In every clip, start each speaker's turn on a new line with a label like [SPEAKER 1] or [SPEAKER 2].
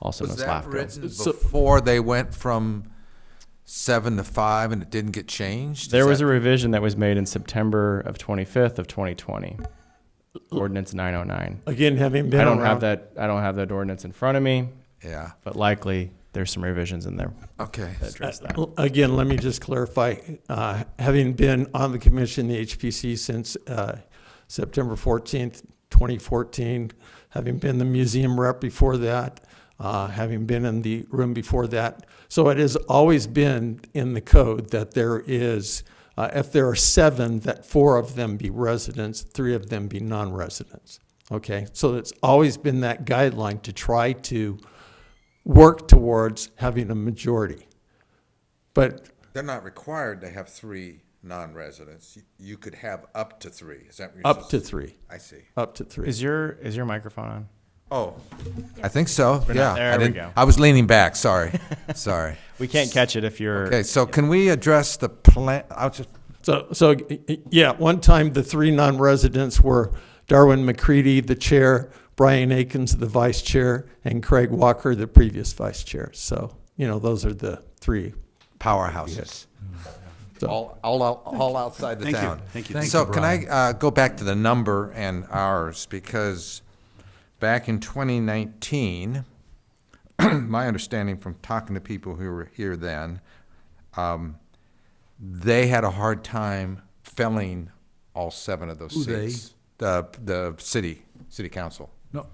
[SPEAKER 1] also
[SPEAKER 2] Was
[SPEAKER 1] known as
[SPEAKER 2] that
[SPEAKER 1] Lafco.
[SPEAKER 2] written
[SPEAKER 3] So-
[SPEAKER 2] before they went from seven to five and it didn't get changed?
[SPEAKER 1] There
[SPEAKER 2] Is
[SPEAKER 1] was a
[SPEAKER 2] that-
[SPEAKER 1] revision that was made in September of 25th of 2020, ordinance 909.
[SPEAKER 3] Again, having been
[SPEAKER 1] I don't
[SPEAKER 3] around.
[SPEAKER 1] have that. I don't have that ordinance in front of me,
[SPEAKER 2] Yeah,
[SPEAKER 1] but likely there's some revisions in there
[SPEAKER 2] okay.
[SPEAKER 1] that address that.
[SPEAKER 3] Uh, Again, let me just clarify, uh, having been on the commission, the HPC since, uh, September fourteenth, twenty fourteen, having been the museum rep before that, uh, having been in the room before that. So it has always been in the code that there is, uh, if there are seven, that four of them be residents, three of them be non-residents. Okay, so it's always been that guideline to try to work towards having a majority. But
[SPEAKER 2] They're not required to have three non-residents. You- You could have up to three. Is that what you're
[SPEAKER 3] Up to
[SPEAKER 2] supposed
[SPEAKER 3] three,
[SPEAKER 2] I see.
[SPEAKER 3] up to three.
[SPEAKER 1] Is your is your microphone on?
[SPEAKER 2] Oh, I think so,
[SPEAKER 1] We're not-
[SPEAKER 2] yeah. I
[SPEAKER 1] there we
[SPEAKER 2] didn't-
[SPEAKER 1] go.
[SPEAKER 2] I was leaning back, sorry, sorry.
[SPEAKER 1] We can't catch it if you're.
[SPEAKER 2] Okay, so can we address the plan, I was just,
[SPEAKER 3] So, so, yeah, one time the three non-residents were Darwin McCready, the chair, Brian Akins, the vice chair, and Craig Walker, the previous vice chair. So, you know, those are the three.
[SPEAKER 2] powerhouses.
[SPEAKER 3] So-
[SPEAKER 2] All, all, out- all outside the
[SPEAKER 4] Thank you.
[SPEAKER 2] town.
[SPEAKER 4] Thank you. Thank
[SPEAKER 2] So
[SPEAKER 4] you,
[SPEAKER 2] can I, uh, go back to the number and hours, because back in twenty nineteen, my understanding from talking to people who were here then, um, they had a hard time filling all seven of those
[SPEAKER 4] Who they?
[SPEAKER 2] seats. The, the city, city council.
[SPEAKER 4] No,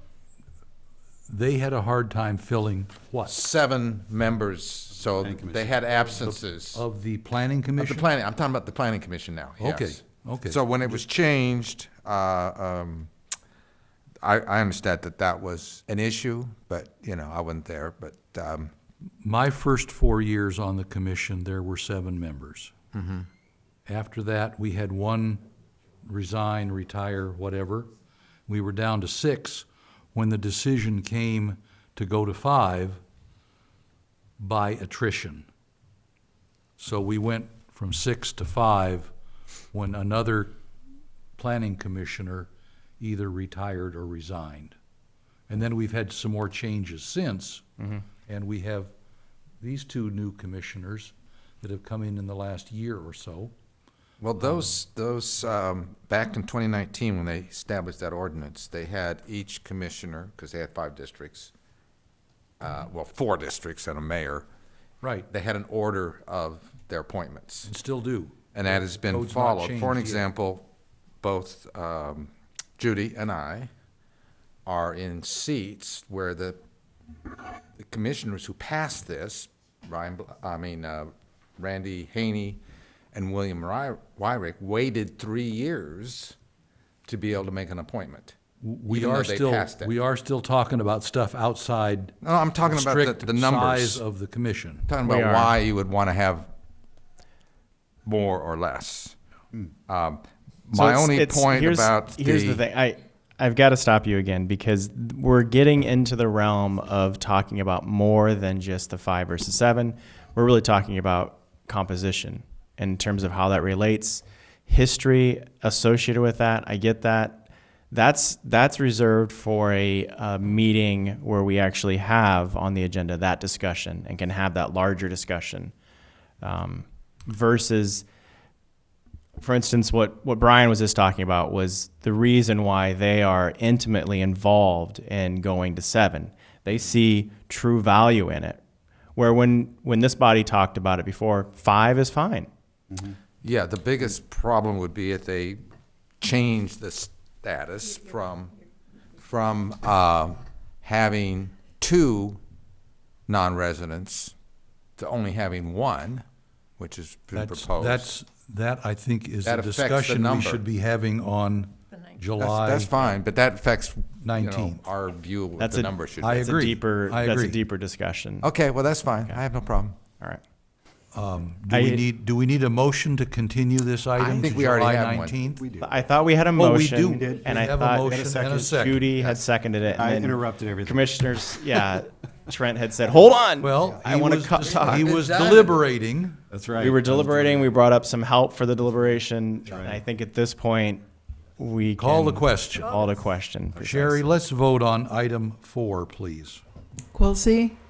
[SPEAKER 4] they had a hard time filling what?
[SPEAKER 2] seven members, so
[SPEAKER 4] Planning
[SPEAKER 2] they had absences. Of
[SPEAKER 4] Of the planning
[SPEAKER 2] the
[SPEAKER 4] commission?
[SPEAKER 2] planning, I'm talking about the planning commission now,
[SPEAKER 4] Okay,
[SPEAKER 2] yes.
[SPEAKER 4] okay.
[SPEAKER 2] So when it was changed, uh, um, I, I understand that that was an issue, but, you know, I wasn't there, but, um,
[SPEAKER 4] My first four years on the commission, there were seven members. After that, we had one resign, retire, whatever. We were down to six when the decision came to go to five by attrition. So we went from six to five when another planning commissioner either retired or resigned. And then we've had some more changes since.
[SPEAKER 2] Mm-hmm.
[SPEAKER 4] And we have these two new commissioners that have come in in the last year or so.
[SPEAKER 2] well, those, those, um, back in twenty nineteen, when they established that ordinance, they had each commissioner, because they had five districts, uh, well, four districts and a mayor,
[SPEAKER 4] Right,
[SPEAKER 2] they had an order of their appointments.
[SPEAKER 4] and still do.
[SPEAKER 2] and that has been
[SPEAKER 4] Code's not
[SPEAKER 2] followed. For an
[SPEAKER 4] changed yet.
[SPEAKER 2] example, both um, Judy and I are in seats where the the commissioners who passed this, Ryan, Bl- I mean, uh, Randy Haney and William Ry- Wyrick waited three years to be able to make an appointment.
[SPEAKER 4] We
[SPEAKER 2] even though
[SPEAKER 4] are
[SPEAKER 2] they
[SPEAKER 4] still,
[SPEAKER 2] passed it.
[SPEAKER 4] we are still talking about stuff outside.
[SPEAKER 2] No, I'm talking about the-
[SPEAKER 4] strict
[SPEAKER 2] the numbers.
[SPEAKER 4] Size of the commission.
[SPEAKER 2] talking
[SPEAKER 1] We
[SPEAKER 2] about
[SPEAKER 1] are.
[SPEAKER 2] why you would want to have more or less.
[SPEAKER 4] Hmm.
[SPEAKER 2] Um,
[SPEAKER 1] So
[SPEAKER 2] My
[SPEAKER 1] it's-
[SPEAKER 2] only
[SPEAKER 1] it's-
[SPEAKER 2] point
[SPEAKER 1] here's,
[SPEAKER 2] about
[SPEAKER 1] here's the, thing. I I've got to stop you again because we're getting into the realm of talking about more than just the five versus seven. We're really talking about composition in terms of how that relates, history associated with that. I get that. That's that's reserved for a, a meeting where we actually have on the agenda that discussion and can have that larger discussion um, versus for instance, what, what Brian was just talking about was the reason why they are intimately involved in going to seven. They see true value in it. Where when, when this body talked about it before, five is fine.
[SPEAKER 2] Yeah, the biggest problem would be if they change the status from, from, uh, having two non-residents to only having one, which is been
[SPEAKER 4] That's,
[SPEAKER 2] proposed.
[SPEAKER 4] that's, that I think is
[SPEAKER 2] That
[SPEAKER 4] a
[SPEAKER 2] affects the
[SPEAKER 4] discussion we
[SPEAKER 2] number.
[SPEAKER 4] should be having on
[SPEAKER 2] That's,
[SPEAKER 4] July.
[SPEAKER 2] that's fine, but that affects, you know,
[SPEAKER 4] 19th.
[SPEAKER 2] our view of what
[SPEAKER 1] That's
[SPEAKER 2] the
[SPEAKER 1] a-
[SPEAKER 2] number should
[SPEAKER 4] I
[SPEAKER 2] be.
[SPEAKER 1] It's
[SPEAKER 4] agree.
[SPEAKER 1] a deeper,
[SPEAKER 4] I
[SPEAKER 1] that's a
[SPEAKER 4] agree. Oh.
[SPEAKER 1] deeper discussion.
[SPEAKER 2] Okay, well, that's fine. I have no problem.
[SPEAKER 1] All right.
[SPEAKER 4] Do we
[SPEAKER 1] I-
[SPEAKER 4] need, do we need a motion to continue this item to
[SPEAKER 2] think we already
[SPEAKER 4] July
[SPEAKER 2] have one.
[SPEAKER 4] nineteenth?
[SPEAKER 5] We do.
[SPEAKER 1] I thought we had a
[SPEAKER 4] Oh, we
[SPEAKER 1] motion.
[SPEAKER 4] do. We did.
[SPEAKER 1] And
[SPEAKER 4] We
[SPEAKER 1] I
[SPEAKER 4] have a
[SPEAKER 1] thought
[SPEAKER 4] motion and a second.
[SPEAKER 1] Judy had seconded it. and
[SPEAKER 5] I
[SPEAKER 1] then
[SPEAKER 5] interrupted everything.
[SPEAKER 1] Commissioners, yeah, Trent had said, hold on.
[SPEAKER 4] Well,
[SPEAKER 1] I
[SPEAKER 4] he
[SPEAKER 1] want to
[SPEAKER 4] was-
[SPEAKER 1] cut
[SPEAKER 4] He
[SPEAKER 1] talk.
[SPEAKER 4] was deliberating.
[SPEAKER 5] That's right.
[SPEAKER 1] We were deliberating. We brought up some help for the deliberation. And I think at this point, we
[SPEAKER 4] Call the
[SPEAKER 1] can Oh.
[SPEAKER 4] question.
[SPEAKER 1] Call the question.
[SPEAKER 4] Sherry, let's vote on item four, please.
[SPEAKER 6] Quilisi?